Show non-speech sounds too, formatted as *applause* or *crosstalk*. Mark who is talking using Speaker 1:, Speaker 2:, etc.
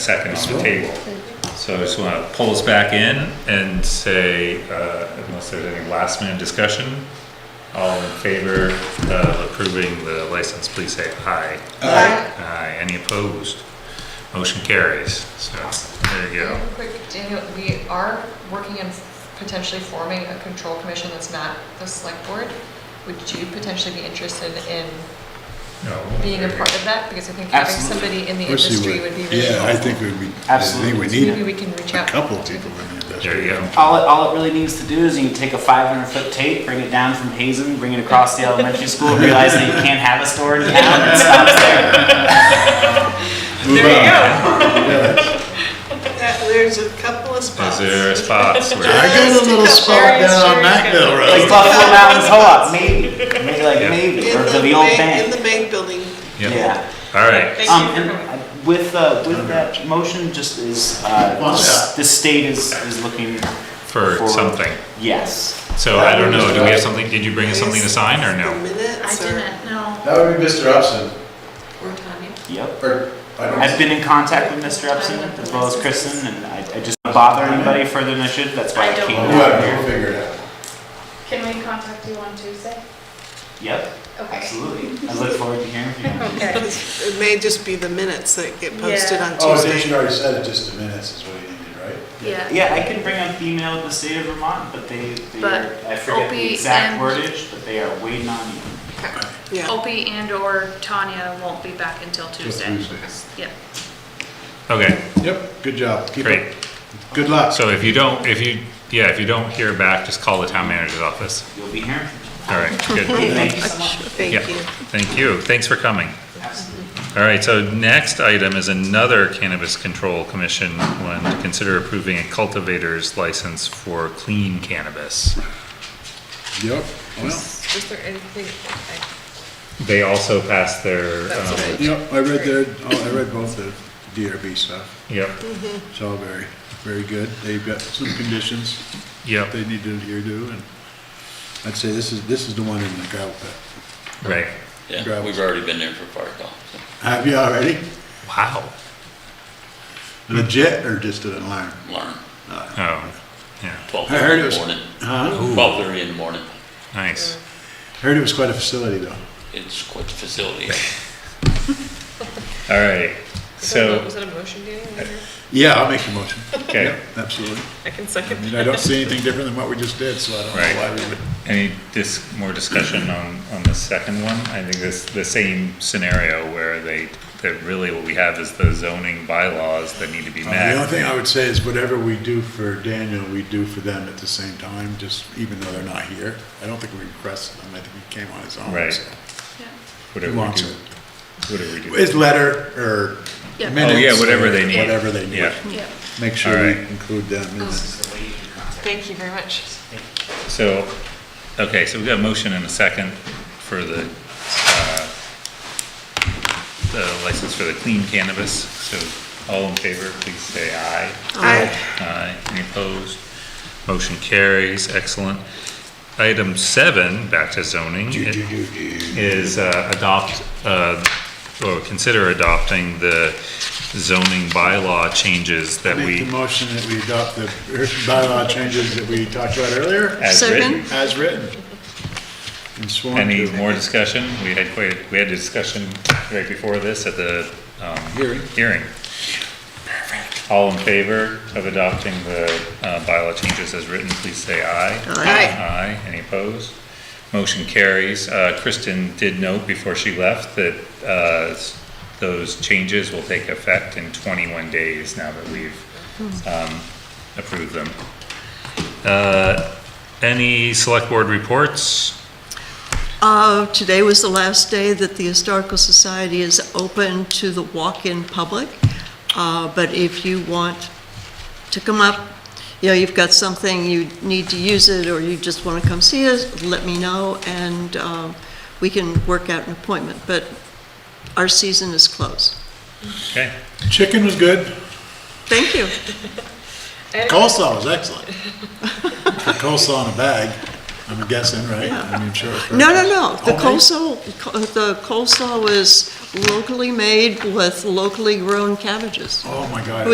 Speaker 1: second on the table. So I just want to pull us back in and say, uh, unless there's any last minute discussion, all in favor of approving the license, please say aye.
Speaker 2: Aye.
Speaker 1: Aye. Any opposed? Motion carries. So there you go.
Speaker 3: Quick, Daniel, we are working on potentially forming a control commission that's not the select board. Would you potentially be interested in
Speaker 1: No,
Speaker 3: being a
Speaker 1: there you
Speaker 3: part of that? Because I think having
Speaker 4: Absolutely.
Speaker 3: somebody in the
Speaker 2: Of course you
Speaker 3: industry would be really
Speaker 2: Yeah, I
Speaker 3: helpful.
Speaker 2: think we'd be, I think we
Speaker 4: Absolutely.
Speaker 3: Maybe
Speaker 2: need
Speaker 3: we can reach
Speaker 2: a
Speaker 3: out.
Speaker 2: couple of people in the industry.
Speaker 1: There you go.
Speaker 4: All it, all it really needs to do is you can take a 500 foot tape, bring it down from Hazen, bring it across the elementary school, realize that you can't have a store in town, and stop there.
Speaker 2: Move
Speaker 3: There you
Speaker 2: on.
Speaker 3: go.
Speaker 5: That- There's a couple of
Speaker 1: go. Is
Speaker 5: spots.
Speaker 1: there spots
Speaker 2: I
Speaker 1: where,
Speaker 2: got a little spot down on Mackville
Speaker 4: Like
Speaker 2: Road.
Speaker 4: Buffalo Mountains Co-op, maybe, maybe like
Speaker 1: Yeah.
Speaker 4: maybe,
Speaker 5: In
Speaker 4: or
Speaker 5: the
Speaker 4: the, the old
Speaker 5: main, in
Speaker 4: bank.
Speaker 5: the main building.
Speaker 1: yeah,
Speaker 4: Yeah.
Speaker 1: all right.
Speaker 4: Um, and with uh, with that motion, just is uh,
Speaker 2: What's
Speaker 4: just the state is is looking
Speaker 1: For something.
Speaker 4: Yes.
Speaker 1: So I don't know, do we have something, did you bring us something to sign or
Speaker 5: The
Speaker 1: no?
Speaker 6: I
Speaker 5: minutes or?
Speaker 6: didn't, no,
Speaker 7: That would be Mr. Upson,
Speaker 6: or Tanya.
Speaker 4: Yep.
Speaker 7: or, I don't.
Speaker 4: I've been in contact with Mr. Upson as well as Kristen, and I, I just don't bother anybody further than I should. That's why I
Speaker 6: I don't
Speaker 4: came
Speaker 6: know.
Speaker 4: down
Speaker 7: Whatever, we'll
Speaker 4: here.
Speaker 7: figure it out.
Speaker 8: Can we contact you on Tuesday?
Speaker 4: Yep. Absolutely. I look forward to hearing from you.
Speaker 8: *laughs* Okay.
Speaker 5: It may just be the minutes that get posted
Speaker 8: Yeah.
Speaker 5: on
Speaker 7: Oh, I think
Speaker 5: Tuesday.
Speaker 7: you already said it, just the minutes is what you needed, right?
Speaker 6: Yeah.
Speaker 4: Yeah, I can bring up the email of the state of Vermont, but they, they
Speaker 6: But
Speaker 4: are, I forget
Speaker 6: Opie
Speaker 4: the exact
Speaker 6: and-
Speaker 4: wordage, but they are waiting on you.
Speaker 5: Yeah,
Speaker 6: Opie and or Tanya won't be back until Tuesday. Yeah.
Speaker 1: Okay,
Speaker 2: Yep, good job. Keep
Speaker 1: great.
Speaker 2: it. Good luck.
Speaker 1: So if you don't, if you, yeah, if you don't hear back, just call the town manager's office.
Speaker 4: You'll be here.
Speaker 1: All right, good.
Speaker 4: Hey, thank you so much.
Speaker 1: Yeah,
Speaker 5: thank you.
Speaker 1: Thank you, thanks for coming.
Speaker 4: Absolutely.
Speaker 1: All right, so next item is another Cannabis Control Commission one, to consider approving a cultivator's license for clean cannabis.
Speaker 2: Yep. Well,
Speaker 3: Was there anything, I-
Speaker 1: They also passed their,
Speaker 3: That's
Speaker 1: um,
Speaker 3: right.
Speaker 2: yep, I read their, oh, I read both the DRB stuff.
Speaker 1: yep,
Speaker 2: It's all very, very good. They've got some conditions
Speaker 1: yep,
Speaker 2: that they need to adhere to, and I'd say this is, this is the one in the gravel pit.
Speaker 1: right.
Speaker 2: Gravel.
Speaker 9: Yeah, we've already been there for fire calls.
Speaker 2: Have you already?
Speaker 1: Wow.
Speaker 2: Legit or just an alarm?
Speaker 9: Learn.
Speaker 1: Oh, yeah,
Speaker 9: Twelve
Speaker 2: I heard
Speaker 9: thirty
Speaker 2: it
Speaker 9: in the
Speaker 2: was-
Speaker 9: morning.
Speaker 2: Huh?
Speaker 9: Twelve thirty in the morning.
Speaker 1: nice.
Speaker 2: Heard it was quite a facility, though.
Speaker 9: It's quite the facility.
Speaker 2: *laughs*
Speaker 1: All right,
Speaker 3: was that a-
Speaker 1: so,
Speaker 3: was that a motion, Daniel?
Speaker 2: Yeah, I'll make the motion.
Speaker 1: okay,
Speaker 2: Yep, Absolutely.
Speaker 3: I can
Speaker 2: I
Speaker 3: second.
Speaker 2: mean, I don't see anything different than what we just did, so I don't
Speaker 1: Right.
Speaker 2: know why we would.
Speaker 1: any dis, more discussion on, on the second one? I think this, the same scenario where they, that really what we have is the zoning bylaws that need to be
Speaker 2: Uh, The only
Speaker 1: met.
Speaker 2: thing I would say is whatever we do for Daniel, we do for them at the same time, just even though they're not here. I don't think we requested them, I think he came on his own.
Speaker 1: Right.
Speaker 2: so.
Speaker 1: Whatever we
Speaker 2: Wants
Speaker 1: do, whatever we do.
Speaker 2: His letter or
Speaker 6: Yeah. Oh,
Speaker 2: minutes.
Speaker 1: yeah, whatever
Speaker 2: or
Speaker 1: they need.
Speaker 2: Whatever they need.
Speaker 1: Yeah,
Speaker 6: Yeah.
Speaker 2: Make sure we
Speaker 1: Alright.
Speaker 2: include them in this.
Speaker 3: Thank you very much.
Speaker 1: so, okay, so we've got a motion and a second for the, uh, the license for the clean cannabis, so all in favor, please say aye.
Speaker 5: I,
Speaker 1: Aye, any opposed? Motion carries, excellent. Item seven, back to zoning, is uh, adopt, uh, or consider adopting the zoning bylaw changes that
Speaker 2: Make the
Speaker 1: we,
Speaker 2: motion that we adopt the bylaw changes that we talked about earlier
Speaker 1: as written.
Speaker 2: as written. And sworn to.
Speaker 1: Any more discussion? We had quite, we had a discussion right before this at the, um,
Speaker 2: Hearing.
Speaker 1: Hearing. All in favor of adopting the uh, bylaw changes as written, please say aye.
Speaker 5: Aye.
Speaker 1: Aye. Any opposed? Motion carries. Uh, Kristen did note before she left that uh, s- those changes will take effect in 21 days now that we've um, approved them. Uh, Any select board reports?
Speaker 10: Uh, Today was the last day that the Historical Society is open to the walk-in public, Uh, but if you want to come up, you know, you've got something, you need to use it, or you just want to come see us, let me know, and um, we can work out an appointment, but our season is closed.
Speaker 1: Okay.
Speaker 2: Chicken was good.
Speaker 10: Thank you.
Speaker 2: Coleslaw was excellent. For coleslaw in a bag, I'm guessing, right? I mean, sure.
Speaker 10: No, no, no, the
Speaker 2: Homemade?
Speaker 10: coleslaw, the coleslaw was locally made with locally grown cabbages.
Speaker 2: Oh, my God.